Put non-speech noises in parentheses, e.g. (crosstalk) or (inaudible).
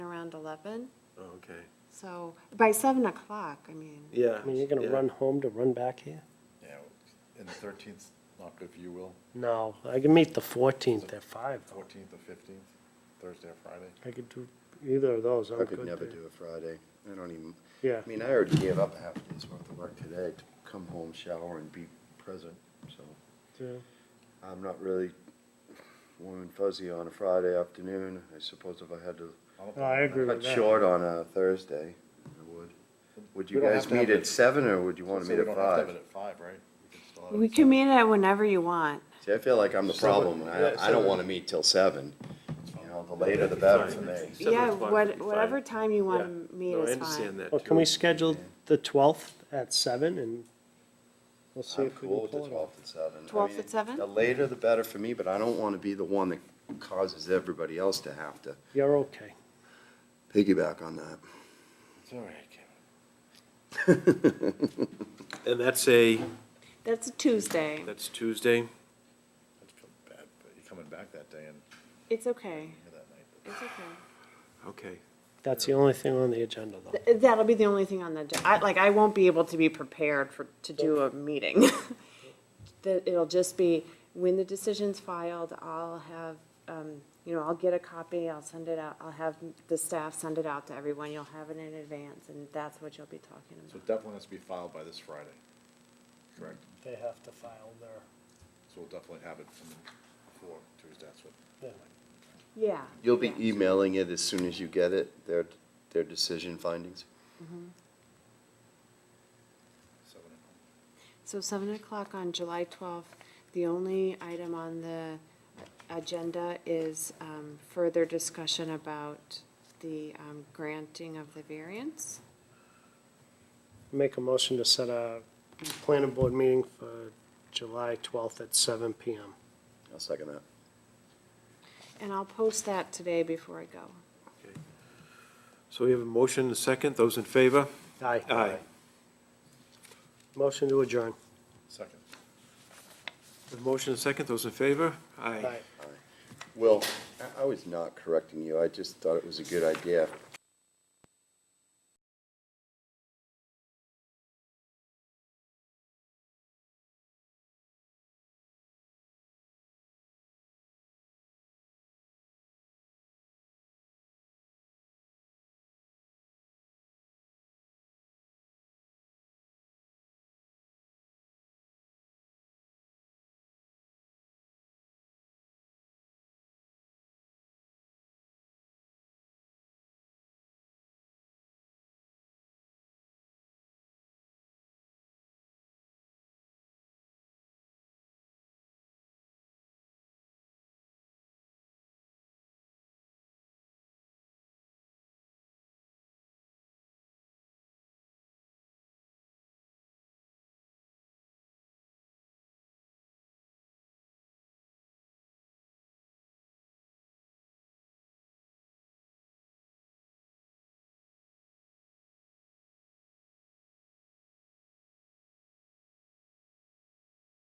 around eleven, Oh, Okay. so, by seven o'clock, I mean. Yeah. I mean, you're gonna yeah. run home to run back here? Yeah, and the thirteenth, not good for you, Will, No, I can meet the fourteenth at five. though. fourteenth or fifteenth, Thursday or Friday. I could do either of those. I'm I could good never there. do a Friday. I don't even, Yeah, I mean, I already gave up half a day's worth of work today to come home, shower, and be present, so yeah. I'm not really warm and fuzzy on a Friday afternoon. I suppose if I had to I don't No, I think- agree with cut that. short on a Thursday, I would. Would you We don't guys have to have meet it- at seven, or would you want to So meet we at don't have to have it five? at five, right? We can still have it We at can seven. meet it whenever you want. See, I feel like I'm the problem. I, yeah, I don't seven. want to meet till seven. You know, the later the better for me. Seven Yeah, o'clock would what, be whatever fine. time you Yeah. want to meet No, I is understand fine. that. Well, too. can we schedule the twelfth at seven and we'll see I'm if we can cool with the pull it off? twelfth at seven. I 12th at mean, seven? The later the better for me, but I don't want to be the one that causes everybody else to have to You're okay. piggyback on that. It's all right, Kevin. And that's a, That's a Tuesday. that's Tuesday? I just feel bad, but you're coming back that day and It's okay. here that night. It's okay. Okay. That's the only thing on the agenda though. Th- That'll be the only thing on the, agenda. I, like, I won't be able to be prepared for, to do a meeting. (laughs) That, it'll just be, when the decision's filed, I'll have, um, you know, I'll get a copy, I'll send it out, I'll have the staff send it out to everyone, you'll have it in advance, and that's what you'll be talking about. So it definitely has to be filed by this Friday, correct? They have to file their, So we'll definitely have it from before Tuesday, that's what. Yeah. You'll be yeah. emailing it as soon as you get it, their, their decision findings? seven o'clock. So seven o'clock on July twelfth, the only item on the agenda is um, further discussion about the um, granting of the variance. make a motion to set a planning board meeting for July twelfth at seven PM. I'll second that. And I'll post that today before I go. So we have a motion and a second. Those in favor? Aye. Aye. Motion to adjourn. Second. A motion and a second. Those in favor? Aye. Aye. Will, I- I was not correcting you, I just thought it was a good idea